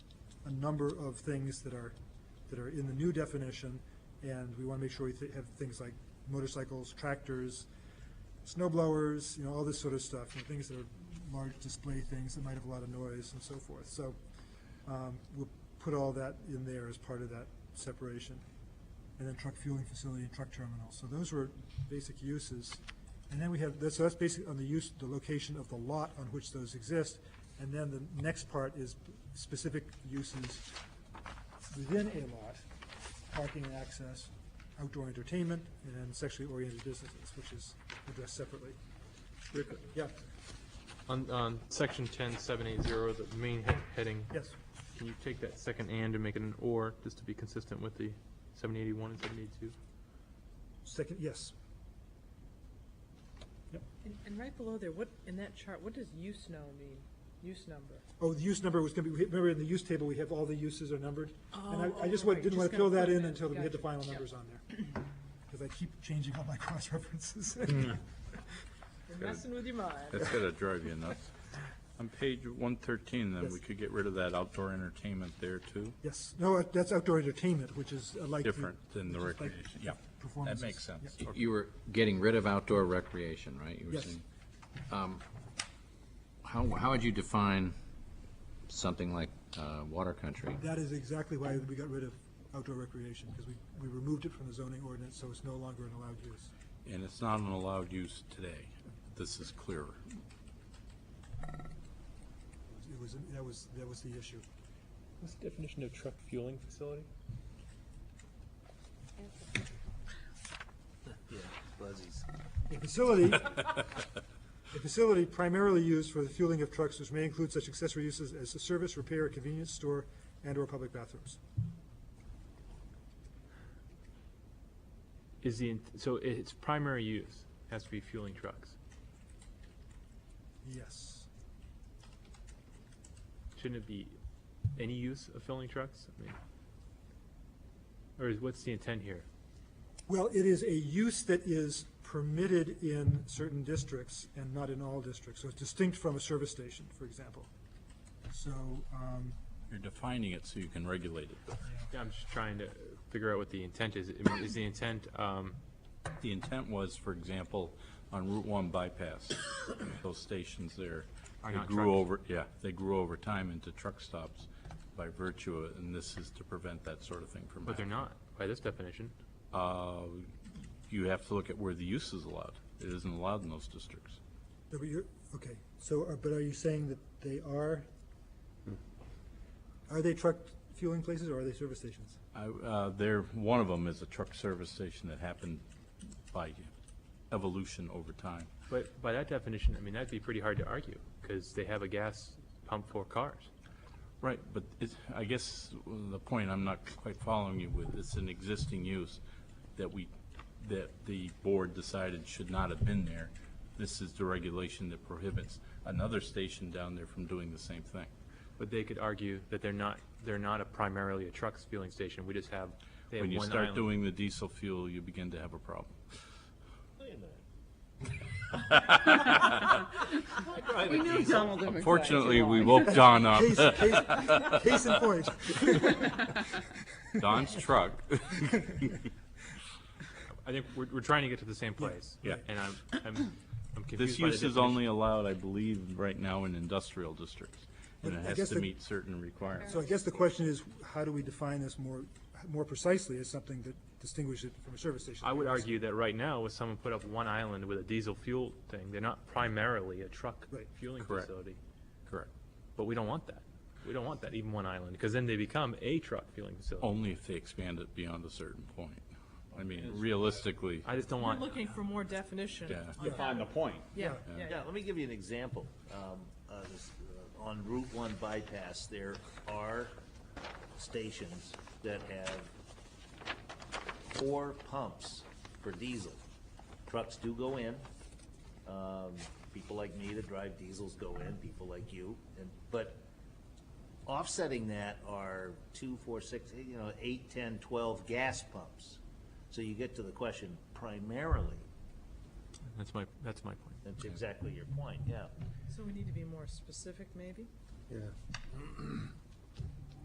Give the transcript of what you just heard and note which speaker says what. Speaker 1: a number of things that are, that are in the new definition, and we want to make sure we th- have things like motorcycles, tractors, snow blowers, you know, all this sort of stuff, you know, things that are large display things that might have a lot of noise and so forth. So um, we'll put all that in there as part of that separation. And then truck fueling facility and truck terminal. So those were basic uses. And then we have, that's- so that's basically on the use, the location of the lot on which those exist. And then the next part is specific uses within a lot, parking and access, outdoor entertainment, and then sexually oriented businesses, which is addressed separately.
Speaker 2: Rick,
Speaker 1: Yeah,
Speaker 2: on, on section ten, seven eight zero, the main he- heading.
Speaker 1: yes,
Speaker 2: Can you take that second and and make it an or, just to be consistent with the seven eighty-one and seven eighty-two?
Speaker 1: second, yes.
Speaker 3: And, and right below there, what, in that chart, what does use know mean? Use number?
Speaker 1: Oh, the use number was gonna be, remember in the use table, we have all the uses are numbered? And
Speaker 3: Oh,
Speaker 1: I, I just
Speaker 3: oh,
Speaker 1: wa-
Speaker 3: right,
Speaker 1: didn't wanna
Speaker 3: just
Speaker 1: fill
Speaker 3: gonna
Speaker 1: that
Speaker 3: put
Speaker 1: in
Speaker 3: it in,
Speaker 1: until we had the
Speaker 3: gotcha,
Speaker 1: final
Speaker 3: yeah.
Speaker 1: numbers on there. Cause I keep changing all my cross references.
Speaker 4: Hmm.
Speaker 3: You're messing with your mind.
Speaker 4: That's gotta drive you nuts. On page one thirteen, then, we
Speaker 1: Yes.
Speaker 4: could get rid of that outdoor entertainment there too,
Speaker 1: Yes, no, uh, that's outdoor entertainment, which is uh, like. the-
Speaker 4: different than the
Speaker 1: which is like
Speaker 4: recreation, yeah. That
Speaker 1: performances.
Speaker 4: makes sense.
Speaker 1: Yeah.
Speaker 5: You were getting rid of outdoor recreation, right? You were
Speaker 1: Yes.
Speaker 5: saying. Um, How, how would you define something like uh, water country?
Speaker 1: That is exactly why we got rid of outdoor recreation, because we, we removed it from the zoning ordinance, so it's no longer an allowed use.
Speaker 4: And it's not an allowed use today. This is clearer.
Speaker 1: It was, that was, that was the issue.
Speaker 2: What's the definition of truck fueling facility?
Speaker 1: A facility, a facility primarily used for the fueling of trucks, which may include such accessory uses as a service, repair, convenience store, and/or public bathrooms.
Speaker 2: Is the, int- so i- its primary use has to be fueling trucks.
Speaker 1: Yes.
Speaker 2: Shouldn't it be any use of fueling trucks? I mean, or is, what's the intent here?
Speaker 1: Well, it is a use that is permitted in certain districts and not in all districts, so it's distinct from a service station, for example. So, um,
Speaker 4: You're defining it so you can regulate it.
Speaker 2: Yeah, I'm just trying to figure out what the intent is. I mean, is the intent, um,
Speaker 4: The intent was, for example, on Route One bypass, those stations there.
Speaker 2: Are
Speaker 4: they
Speaker 2: not
Speaker 4: grew
Speaker 2: trucks.
Speaker 4: over. Yeah, they grew over time into truck stops by virtue, of- and this is to prevent that sort of thing from happening.
Speaker 2: but they're not, by this definition.
Speaker 4: Uh, You have to look at where the use is allowed. It isn't allowed in those districts.
Speaker 1: but you're, okay, so, are- but are you saying that they are, are they truck fueling places or are they service stations?
Speaker 4: I- uh, There, one of them is a truck service station that happened by evolution over time.
Speaker 2: But by that definition, I mean, that'd be pretty hard to argue, because they have a gas pump for cars.
Speaker 4: Right, but it's, I guess the point I'm not quite following you with, it's an existing use that we, that the board decided should not have been there. This is the regulation that prohibits another station down there from doing the same thing.
Speaker 2: But they could argue that they're not, they're not a primarily a truck fueling station, we just have, they have one
Speaker 4: When you
Speaker 2: island.
Speaker 4: start doing the diesel fuel, you begin to have a problem.
Speaker 3: We knew Donald would reply.
Speaker 4: Fortunately, we woke Don up.
Speaker 1: Case, case, case in point.
Speaker 4: Don's truck.
Speaker 2: I think we're, we're trying to get to the same place.
Speaker 4: Yeah.
Speaker 2: And I'm, I'm, I'm confused
Speaker 4: This
Speaker 2: by the
Speaker 4: use is
Speaker 2: definition.
Speaker 4: only allowed, I believe, right now in industrial districts, and
Speaker 1: But I
Speaker 4: it
Speaker 1: guess
Speaker 4: has to
Speaker 1: the-
Speaker 4: meet certain requirements.
Speaker 1: So I guess the question is, how do we define this more, more precisely as something that distinguishes it from a service station?
Speaker 2: I would argue that right now, if someone put up one island with a diesel fuel thing, they're not primarily a truck
Speaker 1: Right.
Speaker 2: fueling
Speaker 4: Correct.
Speaker 2: facility.
Speaker 4: Correct.
Speaker 2: But we don't want that. We don't want that, even one island, because then they become a truck fueling facility.
Speaker 4: Only if they expand it beyond a certain point. I mean, realistically,
Speaker 2: I just don't
Speaker 3: We're
Speaker 2: want.
Speaker 3: looking for more definition.
Speaker 4: Yeah.
Speaker 3: on that.
Speaker 6: find the point.
Speaker 3: Yeah, yeah,
Speaker 6: Yeah, let me give you an example. Um, uh, this, uh, On Route One bypass, there are stations that have four pumps for diesel. Trucks do go in. Um, People like me that drive diesels go in, people like you, and, but offsetting that are two, four, six, eh, you know, eight, ten, twelve gas pumps. So you get to the question primarily,
Speaker 2: That's my, that's my point.
Speaker 6: that's exactly your point, yeah.
Speaker 3: So we need to be more specific, maybe?